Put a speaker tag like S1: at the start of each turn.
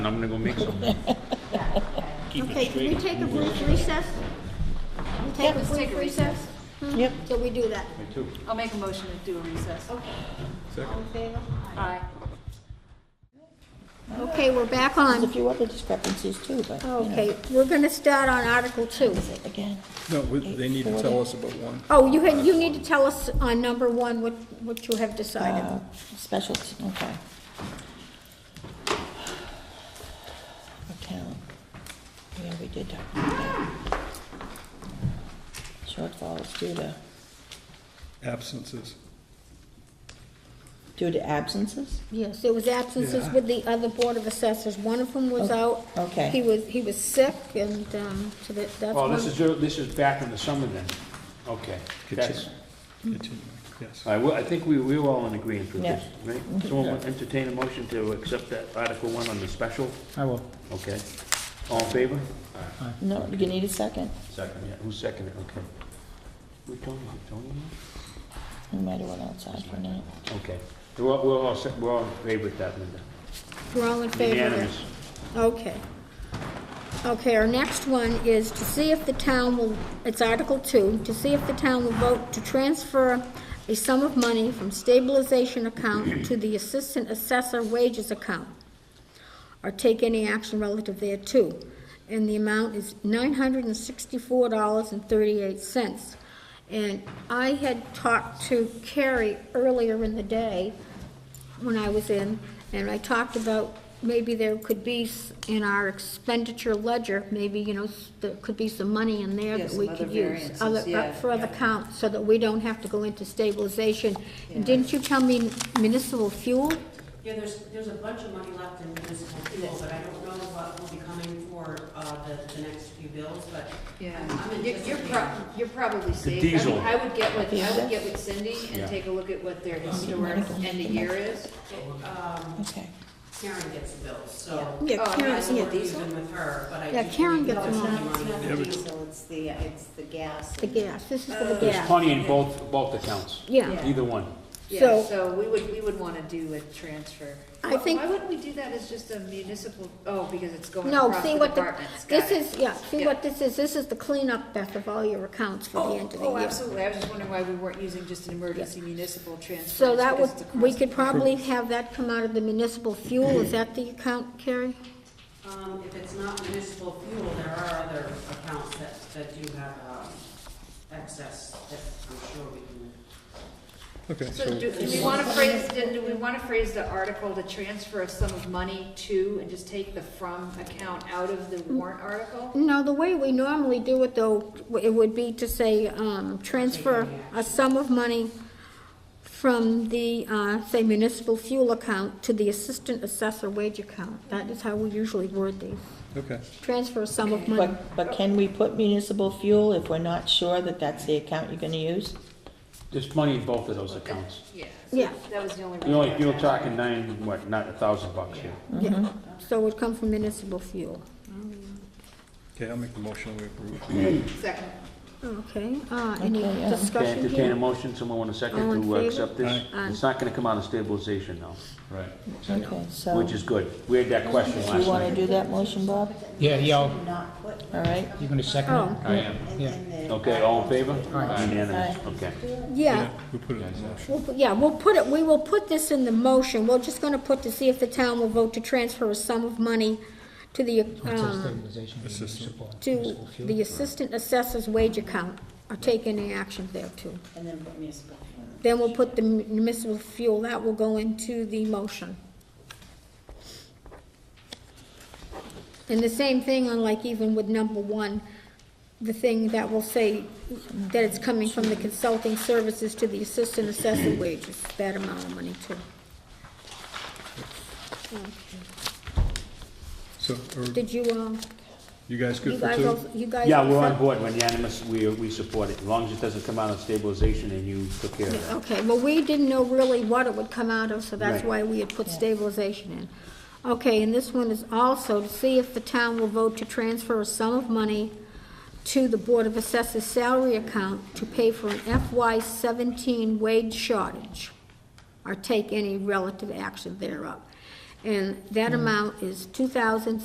S1: And I'm gonna go make some.
S2: Okay, can we take a brief recess? Can we take a
S3: Let's take
S2: brief
S3: a
S2: recess?
S3: Yep.
S2: Till we do that.
S3: I'll make a motion to do a recess.
S2: All in favor?
S3: Aye.
S2: Okay, we're back on.
S4: There's a few other discrepancies too, but, you know,
S2: Okay, we're gonna start on Article Two.
S4: again,
S5: No, we- they need to tell us about one.
S2: Oh, you had, you need to tell us on number one what, what you have
S4: uh,
S2: decided.
S4: specialty, okay. Account, yeah, we did talk about that. Shortfalls due to,
S5: Absences.
S4: due to absences?
S2: Yes, there was absences
S5: Yeah.
S2: with the other Board of Assessors. One of them was out.
S4: okay.
S2: He was, he was sick and, um, so that, that's
S1: Well,
S2: one.
S1: Oh, this is, your- this is back in the summer then. Okay. That's,
S5: Continue. Continuing, yes.
S1: I, will- I think we, we were all in agreement with this,
S4: Yeah.
S1: right?
S2: Mm-hmm.
S1: Someone want to entertain a motion to accept that Article One on the special?
S5: I will.
S1: Okay. All in favor?
S4: No, you need a second,
S1: Second. Yeah, who's seconded? Okay. Who, Tony, Tony?
S4: we might have went outside for a minute.
S1: Okay. We're, all- we're all, se- we're all in favor of that, Linda.
S2: We're all in favor of that.
S1: Unanimous.
S2: Okay. Okay, our next one is to see if the town will, it's Article Two, to see if the town will vote to transfer a sum of money from stabilization account to the assistant assessor wages account, or take any action relative thereto. And the amount is nine hundred and sixty-four dollars and thirty-eight cents. And I had talked to Carrie earlier in the day, when I was in, and I talked about maybe there could be, s- in our expenditure ledger, maybe, you know, s- there could be some money in there
S3: Yeah,
S2: that
S3: some
S2: we
S3: other
S2: could use.
S3: variances,
S2: other- uh,
S3: yeah,
S2: For other
S3: yeah.
S2: accounts, so that we don't have to go into stabilization. And
S3: Yeah.
S2: didn't you tell me municipal fuel?
S6: Yeah, there's, there's a bunch of money left in municipal fuel, but I don't know what will be coming for, uh, the, the next few bills, but
S3: Yeah,
S6: I'm I'm
S3: you're, you're prob,
S6: anticipating.
S3: you're probably safe.
S1: diesel.
S3: I mean, I would get with, I
S4: Diesel.
S3: would get with Cindy
S1: Yeah.
S3: and take a look at what their historic end of year is.
S4: Okay,
S6: um, Karen gets the bills, so. Um,
S2: Yeah,
S3: Oh, I'm
S2: Karen,
S3: not
S6: I'm
S3: seeing
S2: yeah,
S3: a
S6: not
S3: diesel?
S6: even with her, but I.
S2: Yeah,
S6: do
S2: Karen
S6: believe
S2: gets
S6: there's
S2: them all.
S6: money
S7: Not
S6: left.
S7: the diesel, it's the, it's the gas.
S2: the gas, this is for
S3: Uh,
S2: the
S1: There's
S2: gas.
S1: plenty in both, both accounts.
S2: Yeah.
S1: Either one.
S3: Yeah,
S2: So-
S3: so we would, we would wanna do a transfer.
S2: I think-
S3: Why wouldn't we do that as just a municipal, oh, because it's going
S2: No,
S3: across
S2: see
S3: the
S2: what the,
S3: departments. Got
S2: this
S3: it.
S2: is, yeah, see
S3: Yeah.
S2: what this is, this is the cleanup, Beth, of all your accounts for the
S3: Oh,
S2: end of the year.
S3: oh, absolutely. I was just wondering why we weren't using just an emergency municipal transfer.
S2: So
S3: It's
S2: that would,
S3: because it's
S2: we
S3: across
S2: could
S3: the-
S2: probably have that come out of the municipal fuel, is that the account, Carrie?
S6: Um, if it's not municipal fuel, there are other accounts that, that do have, um, excess that I'm sure we can.
S5: Okay,
S3: So do, do we wanna phrase, then do we wanna phrase the article to transfer a sum of money to and just take the from account out of the warrant article?
S2: No, the way we normally do it though, it would be to say, um, transfer a sum of money from the, uh, say municipal fuel account to the assistant assessor wage account. That is how we usually word these.
S5: okay.
S2: Transfer a sum of money.
S4: but, but can we put municipal fuel if we're not sure that that's the account you're gonna use?
S1: There's plenty in both of those accounts.
S3: Yeah.
S2: Yeah.
S3: That was the only.
S1: You're only,
S3: reason I
S1: you're
S3: was
S1: talking nine, what, not a thousand bucks here.
S2: Yeah, so it would come from municipal fuel.
S5: Okay, I'll make the motion we approve.
S3: asking. Second.
S2: Okay, uh, any
S4: Okay, yeah.
S1: Okay,
S2: discussion
S1: entertain a
S2: here?
S1: motion, someone want a
S2: All
S1: second
S2: in
S1: to uh,
S2: favor?
S1: accept this?
S2: Aye.
S1: It's not gonna come out of stabilization now,
S5: Right.
S4: Okay, so,
S1: which is good. We had that question
S4: you
S1: last
S4: wanna
S1: night.
S4: do that motion, Bob?
S8: Yeah, yeah, I'll-
S7: Not put
S4: All right,
S8: you gonna second
S2: Oh,
S8: it?
S7: in-
S8: Yeah.
S7: in the.
S1: Okay, all in favor?
S8: Aye.
S1: Unanimous,
S4: Aye.
S1: okay.
S2: yeah.
S5: Yeah, we put it in the motion.
S2: We'll put- Yeah, we'll put it, we will put this in the motion, we're just gonna put to see if the town will vote to transfer a sum of money to the,
S8: I'll take
S2: um,
S8: stabilization of the
S5: Assistant.
S8: municipal-
S2: to
S8: municipal fuel.
S2: the assistant assessor's wage account, or take any action there too.
S7: And then put municipal fuel.
S2: Then we'll put the municipal fuel, that will go into the motion. And the same thing on like even with number one, the thing that will say that it's coming from the consulting services to the assistant assessor wages, that amount of money too.
S5: So, are
S2: Did you, um,
S5: you guys
S2: you
S5: good for
S2: guys,
S5: two?
S2: all- you guys?
S1: Yeah,
S2: all
S1: we're on
S2: set?
S1: board, We're unanimous, we, we support it. As long as it doesn't come out of stabilization and you took care of that.
S2: Okay, well, we didn't know really what it would come out of, so that's
S1: Right.
S2: why we had put stabilization in. Okay, and this one is also to see if the town will vote to transfer a sum of money to the Board of Assessors salary account to pay for an FY seventeen wage shortage, or take any relative action thereof. And that amount is two thousand